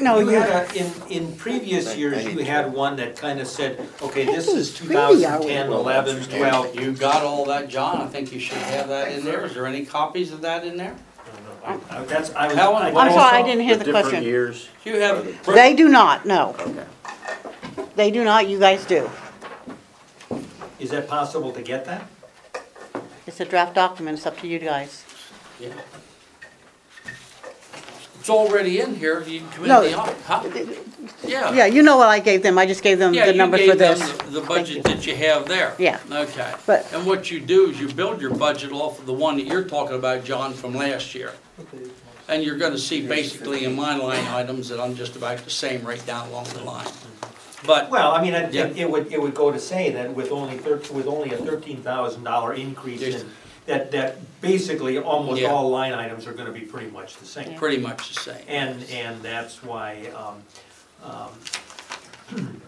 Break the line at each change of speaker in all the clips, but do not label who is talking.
No,
You
you,
had a, in, in previous years, you had one that kind of said, okay, this is
Hey, really, I
2010,
would-
11, 12.
You got all that, John, I think you should have that in there, is there any copies of that in there?
I- I- That's, I was.
That one
I-
I'm sorry, I
also-
didn't hear the
Different
question.
years,
Do you have?
They do not, no.
okay.
They do not, you guys do.
Is that possible to get that?
It's a draft document, it's up to you guys.
Yeah. It's already in here, you come in
No.
the, op- huh? Yeah.
Yeah, you know what I gave them, I just gave them
Yeah,
the
you
number for
gave them
this.
the- The budget that you have there.
Yeah.
Okay.
But-
And what you do is you build your budget off of the one that you're talking about, John, from last year. And you're gonna see basically in my line items that I'm just about the same right down along the line. But,
Well, I mean, I think
Yeah.
it would, it would go to say that with only thir, with only a thirteen thousand dollar increase
Yes.
in, that, that basically almost
Yeah.
all line items are gonna be pretty much the same.
pretty much the same.
And, and that's why, um, um,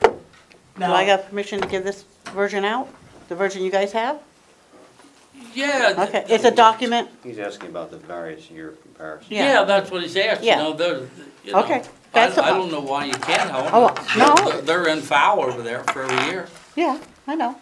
Do I
now,
have permission to give this version out? The version you guys have?
Yeah. th-
Okay, it's a document?
He's asking about the various year comparison.
yeah.
Yeah, that's what he's asking, you
Yeah.
know, they're, you know.
Okay,
I,
that's a-
I don't know why you can't, I
Oh, no.
They're- They're in foul over there for every year.
Yeah, I know.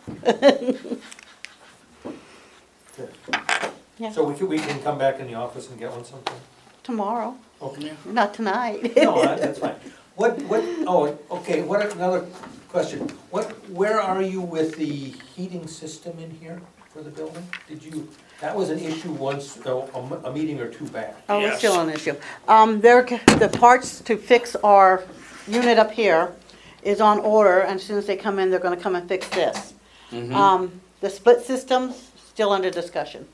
so we can, we can come back in the office and get one sometime?
Tomorrow,
Okay.
not tonight.
No, I- that's fine. What, what, oh, okay, what, another question. What, where are you with the heating system in here for the building? Did you, that was an issue once, uh, a, a- a meeting or two back.
Oh, it's
Yes.
still an issue. Um, there, c- the parts to fix our unit up here is on order, and as soon as they come in, they're gonna come and fix this.
Mm-hmm.
Um, the split system's still under discussion.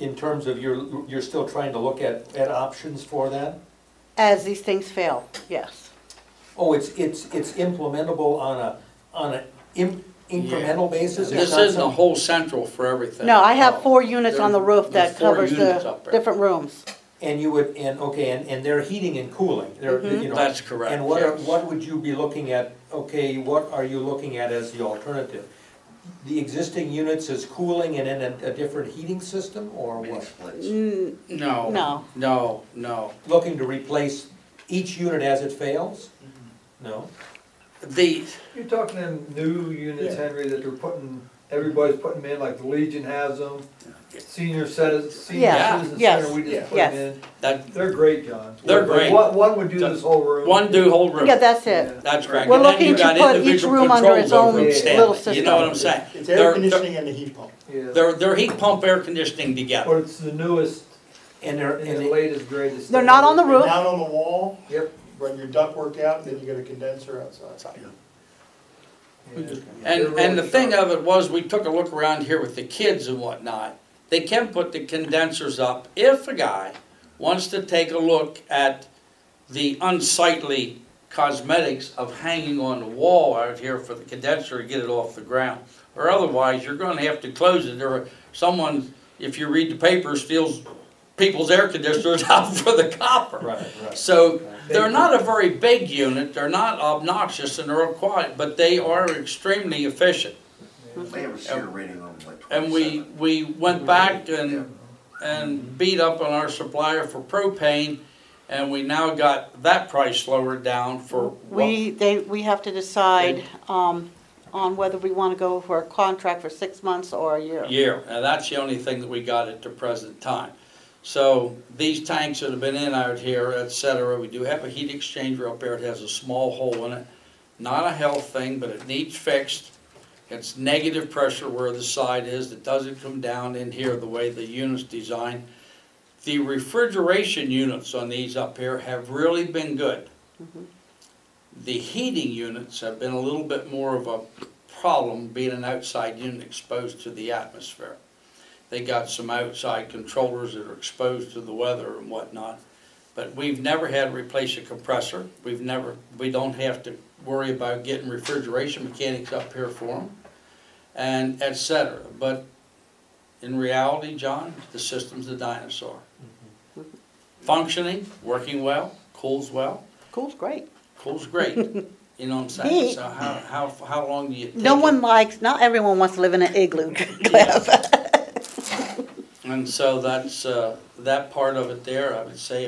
In terms of you're, you're still trying to look at, at options for that?
As these things fail, yes.
Oh, it's, it's, it's implementable on a, on a im- incremental basis? It's
This
not
isn't a
some-
whole central for everything. Oh,
No, I have four units on the roof that
There's four
covers
units
the
up there.
different rooms.
And you would, and, okay, and, and they're heating and cooling, they're, you know.
That's correct,
And what, are-
yes.
what would you be looking at, okay, what are you looking at as the alternative? The existing units is cooling and then a, a different heating system, or what?
Mm,
No.
No.
No, no.
Looking to replace each unit as it fails? No?
The,
You're talking them new units,
Yeah.
Henry, that they're putting, everybody's putting them in, like the Legion has them, senior citizen, senior
Yeah.
citizen
Yes.
center, we just put
Yeah.
them in.
that,
They're great, John.
They're
One-
great.
One, one would do this whole room.
one do whole room.
Yeah, that's it.
That's correct.
We're
And then
looking
you
to
got
put each
individual
room under
controls
its own
over them, Stanley.
little
You
system.
know what I'm saying?
It's
They're-
air conditioning and the heat pump.
Yeah.
They're, they're heat pump, air conditioning
But
together.
it's the newest
And they're,
and
and
the
they-
latest, greatest.
They're not on the
You're
roof.
Down on the wall,
Yep.
run your duct work out, then you get a condenser outside.
yeah. They're
And,
really
and the thing
sharp.
of it was, we took a look around here with the kids and whatnot. They can put the condensers up if a guy wants to take a look at the unsightly cosmetics of hanging on the wall out here for the condenser to get it off the ground. Or otherwise, you're gonna have to close it, or someone, if you read the paper, steals people's air conditioners out for the copper.
right, right.
So they're not a very big unit, they're not obnoxious and they're quiet, but they are extremely efficient.
They have a seer rating on them like twenty-seven.
And we, we went back and, and beat up on our supplier for propane and we now got that price lowered down for what?
We, they, we have to decide, um, on whether we wanna go for a contract for six months or a year.
Year, and that's the only thing that we got at the present time. So these tanks that have been in out here, et cetera, we do have a heat exchanger up there, it has a small hole in it. Not a health thing, but it needs fixed. It's negative pressure where the side is, it doesn't come down in here the way the unit's designed. The refrigeration units on these up here have really been good. The heating units have been a little bit more of a problem being an outside unit exposed to the atmosphere. They got some outside controllers that are exposed to the weather and whatnot. But we've never had to replace a compressor. We've never, we don't have to worry about getting refrigeration mechanics up here for them and et cetera. But in reality, John, the system's a dinosaur.
Mm-hmm.
Functioning, working well, cools well,
Cool's great.
cools great. You know what I'm saying? So how, how, how long do you take?
No
it?
one likes, not everyone wants to live in an igloo, Cliff.
And so that's, uh, that part of it there, I would say